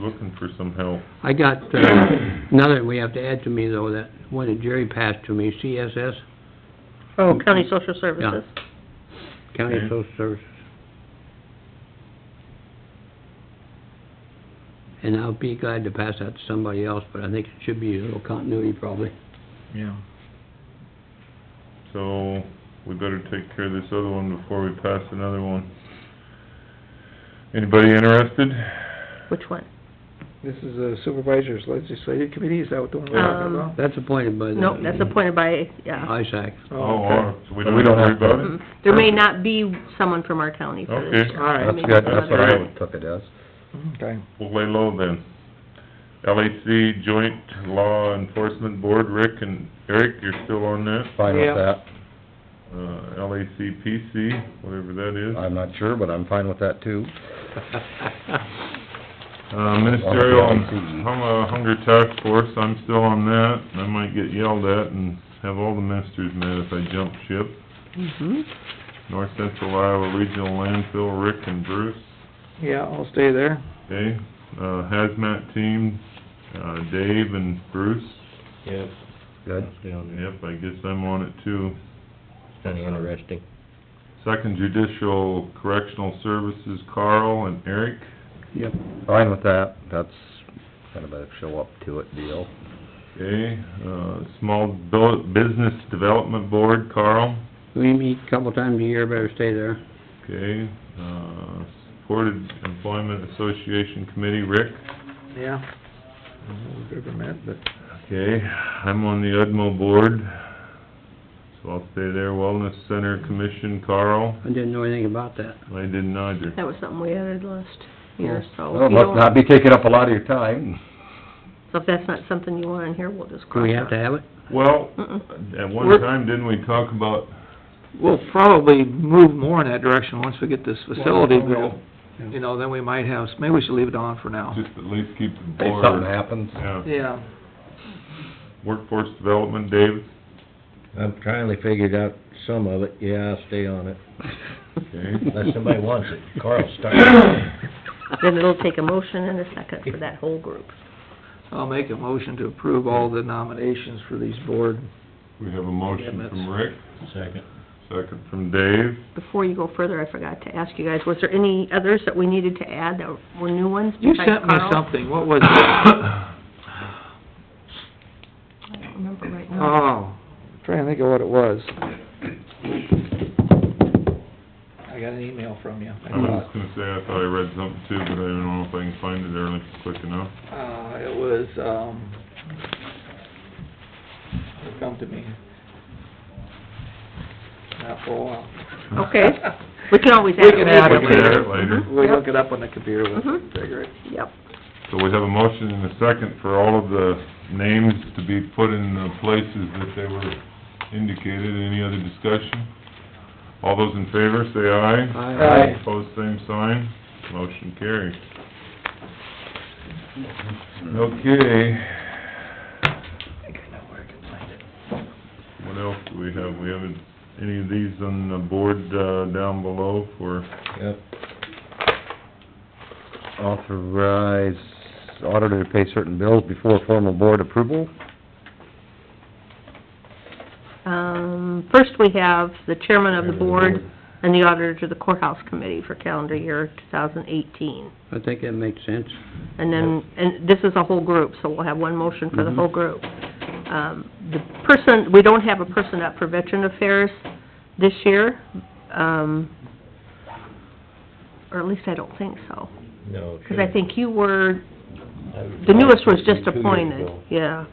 looking for some help. I got, uh, another we have to add to me though, that one that Jerry passed to me, CSS, Oh, county social services. County Okay. Social Services. And I'll be glad to pass that to somebody else, but I think it should be a little continuity probably. Yeah. So, we better take care of this other one before we pass another one. Anybody interested? Which one? This is the supervisor's legislative committee, is that what the one we're talking Um, about? That's appointed by the... Nope, that's appointed by, yeah. ISAC. Oh, okay. uh, so we don't worry about it? Mm. There may not be someone from our county for this. Okay. All right. Maybe That's good, some that's what other- I would took it as. Okay. We'll lay low then. LAC Joint Law Enforcement Board, Rick and Eric, you're still on that? Fine with Yeah. that. Uh, LACPC, whatever that is. I'm not sure, but I'm fine with that too. Uh, Ministerial Well, on it's the LACE. Hum- uh, Hunger Task Force, I'm still on that, and I might get yelled at and have all the ministers mad if I jump ship. Mhm. North Central Iowa Regional Landfill, Rick and Bruce, Yeah, I'll stay there. okay? Uh, Hazmat Team, uh, Dave and Bruce. Yep. Good. Yep, I guess I'm on it too. Kinda interesting. Second Judicial Correctional Services, Carl and Eric. Yep. Fine with that. That's kind of a show up to it deal. Okay, uh, Small Bu- Business Development Board, Carl. We meet a couple times a year, better stay there. Okay, uh, Supported Employment Association Committee, Rick. Yeah. I don't know if we've ever met, but, Okay, I'm on the UDMO Board, so I'll stay there. Wellness Center Commission, Carl. I didn't know anything about that. I didn't either. That was something we added last year, Oh, so Well, if you must don't, not be taking up a lot of your time. so if that's not something you want in here, we'll just Do cross we it have out. to have it? Well, Mm-mm. at one We're- time, didn't we talk about, we'll probably move more in that direction once we get this facility built. You know, then we might have, maybe we should leave it on for now. just at least keep the If board... something happens. Yeah, Yeah. Workforce Development, Dave. I've finally figured out some of it, yeah, I'll stay on it. Unless Okay. somebody wants it, Carl started. Then it'll take a motion and a second for that whole group. I'll make a motion to approve all the nominations for these board. We have a motion from Rick, Second. second from Dave. Before you go further, I forgot to ask you guys, was there any others that we needed to add that were new ones You besides sent me Carl? something, what was it? I don't remember right now. Oh, trying to think of what it was. I got an email from you. I I was thought. just gonna say, I thought I read something too, but I don't know if I can find it there like quick enough. Uh, it was, um, it'll come to me. Not for a while. Okay, we can always add We it can later. add it We can add it later. We look it up on the computer, we'll Mhm. figure it. Yep, So we have a motion and a second for all of the names to be put in the places that they were indicated. Any other discussion? All those in favor, say aye. Aye. Aye. Opposed, same sign. Motion carries. Okay. What else do we have? We haven't, any of these on the board, uh, down below for, Yep. Authorize auditor to pay certain bills before formal board approval. um, first we have the chairman of the board and the auditor to the courthouse committee for calendar year two thousand eighteen. I think that makes sense. And then, and this is a whole group, so we'll have one motion for the whole group. Um, the person, we don't have a person up for veteran affairs this year, um, or at least I don't think so. No. Because I think you were, think the newest was just appointed, yeah.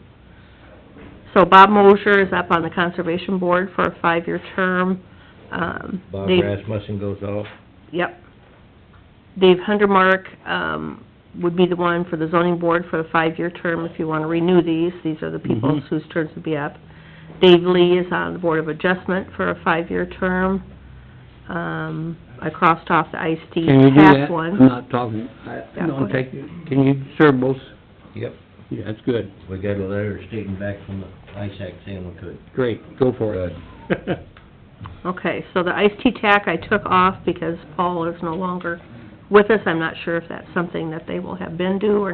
So Bob Mosher is up on the Conservation Board for a five-year term. Um, Bob Dave- Rasmussen goes off, Yep. Dave Hundermark, um, would be the one for the zoning board for the five-year term, if you want to renew these, these are the people Mhm. Mm-hmm. whose turns would be up. Dave Lee is on the Board of Adjustment for a five-year term. Um, I crossed off the Ice T Can you do that? past one. I'm not talking, I, Yeah, go don't ahead. take, can you serve both? yep. Yeah, that's good, We got a letter stating back from the ISAC saying we could. great, go for it. Good. Okay, so the iced tea tack I took off because Paul is no longer with us. I'm not sure if that's something that they will have been due or